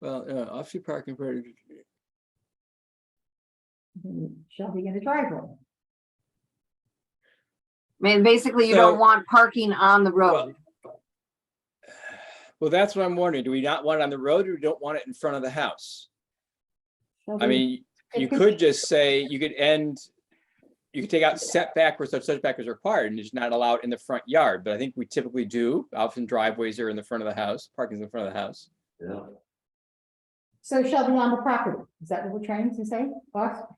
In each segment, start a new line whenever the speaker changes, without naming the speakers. Well, uh, off-street parking for,
Shall be in the driveway.
I mean, basically you don't
So-
want parking on the road.
well, that's what I'm wondering. Do we not want it on the road or we don't want it in front of the house?
Shall
I
be-
Mhm.
mean,
it
you
could
could just say, you could end, you could take out setback where such setback is required and it's not allowed in the front yard, but I think we typically do. Often driveways are in the front of the house, parking's in the front of the house.
Yeah.
So shall be on the property. Is that what we're trying to say? Off-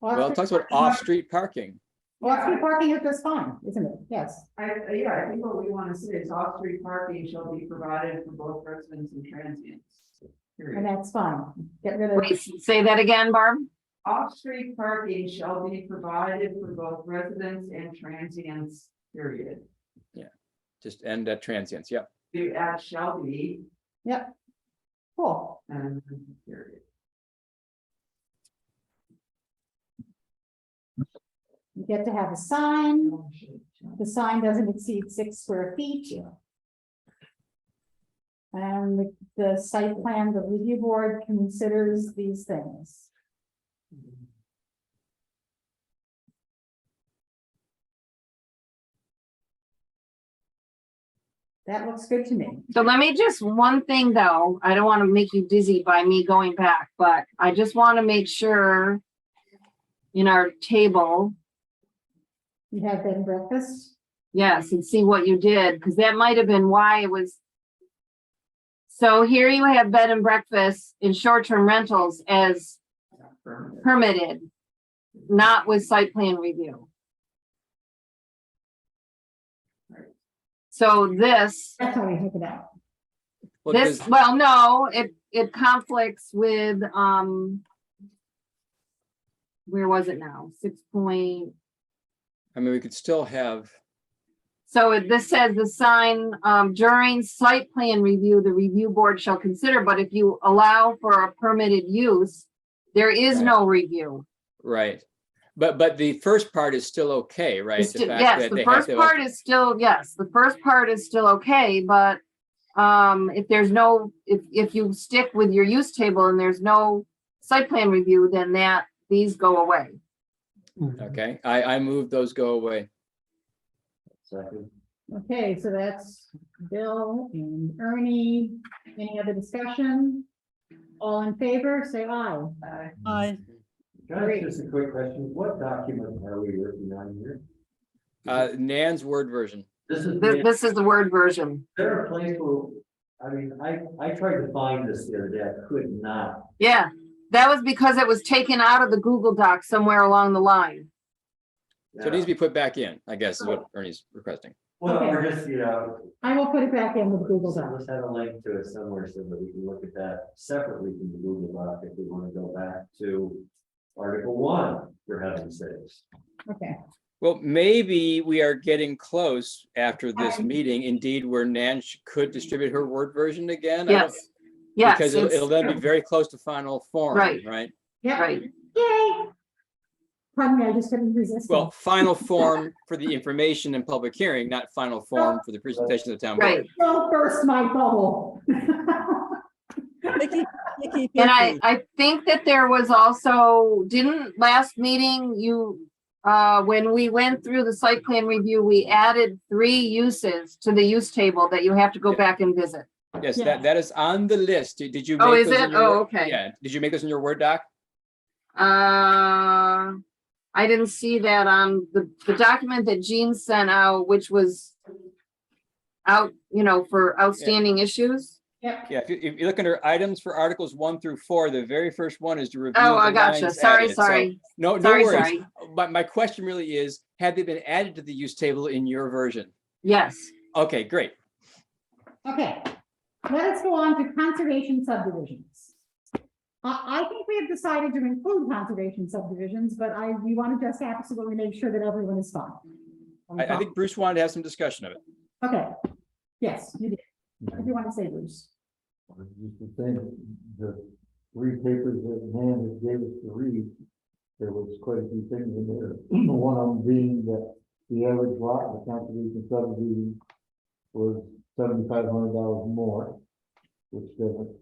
Well, it
off-
talks about off-street parking.
Off-street parking is just fine, isn't it? Yes.
I, yeah, I think what we wanna see is off-street parking shall be provided for both residents and transients.
And
Period.
that's fine. Get rid of.
Wait, say that again, Barb?
Off-street parking shall be provided for both residents and transients, period.
Just end at transients, yeah.
The add shall be,
Yep. Cool.
and period.
You get to have a sign. The sign doesn't exceed six square feet. And the- the site plan, the review board considers these things. That looks good to me.
So let me just, one thing though, I don't want to make you dizzy by me going back, but I just want to make sure in our table,
You have bed and breakfast?
yes, and see what you did, because that might have been why it was. So here you have bed and breakfast in short-term rentals as permitted, not with site plan review. So this
That's how we hook it out.
Well,
This,
does-
well, no, it, it conflicts with, um. Where was it now? Six point,
I mean, we could still have,
so it- this says the sign, um, during site plan review, the review board shall consider, but if you allow for a permitted use. There is
Right.
no review.
right. But, but the first part is still okay, right?
It's
The
sti-
fact
Yes,
that
the
they have
first
to-
part is still, yes, the first part is still okay, but. Um, if there's no, if, if you stick with your use table and there's no site plan review, then that, these go away.
Okay, I, I move those go away.
Second.
Okay, so that's Bill and Ernie. Any other discussion? All in favor, say aye.
Uh,
Can I ask just a quick question? What document are we working on here?
Uh, Nan's word version.
This is,
This,
is
this is the word version.
there a place where, I mean, I, I tried to find this the other day, I could not.
Yeah, that was because it was taken out of the Google Doc somewhere along the line.
So it needs to be put back in, I guess, is what Ernie's requesting.
Uh, Well, we're just, you know,
I will put it back in with Google
let's
Docs.
let's have a link to it somewhere so that we can look at that separately from the Google Doc if we want to go back to Article one, for heaven's sakes.
Okay,
Well, maybe we are getting close after this
Okay.
meeting, indeed, where Nan sh- could distribute her word version again. I don't-
Yes. Yes.
Because it'll-
it's-
it'll then be very close to final form,
Right.
right?
yeah,
Right,
yay. Pardon me, I just couldn't resist.
Well, final form for the information and public hearing, not final form for the presentation of the town. board.
right.
Don't burst my bubble.
Vicky, Vicky,
And I,
Vicky,
I think that there was also, didn't last meeting you, uh, when we went through the site plan review, we added three uses to the use table that you have to go back and visit.
Yes,
Yeah.
that, that is on the list. Did did you?
Oh,
make
is
those in
it?
your
Oh,
Word-
okay.
Yeah, did you make this in your Word doc?
Uh, I didn't see that on the, the document that Jean sent out, which was out, you know, for outstanding issues.
Yep,
Yeah, if you, if you look under items for articles one through four, the very first one is to review.
Oh, I
the
gotcha.
lines
Sorry,
added. So,
sorry,
No, no
sorry,
worries.
sorry.
But my question really is, had they been added to the use table in your version?
Yes.
Okay, great.
okay. Let us go on to conservation subdivisions. I, I think we have decided to include conservation subdivisions, but I, we want to just absolutely make sure that everyone is fine.
I,
Uh-huh.
I think Bruce wanted to have some discussion of it.
Okay. Yes, you did. What do you want to say, Bruce?
Or Just the thing, the three papers that Nan had gave us to read, there was quite a few things in there. One of them being that the average lot in the conservation subdivision was seventy-five hundred dollars more, which doesn't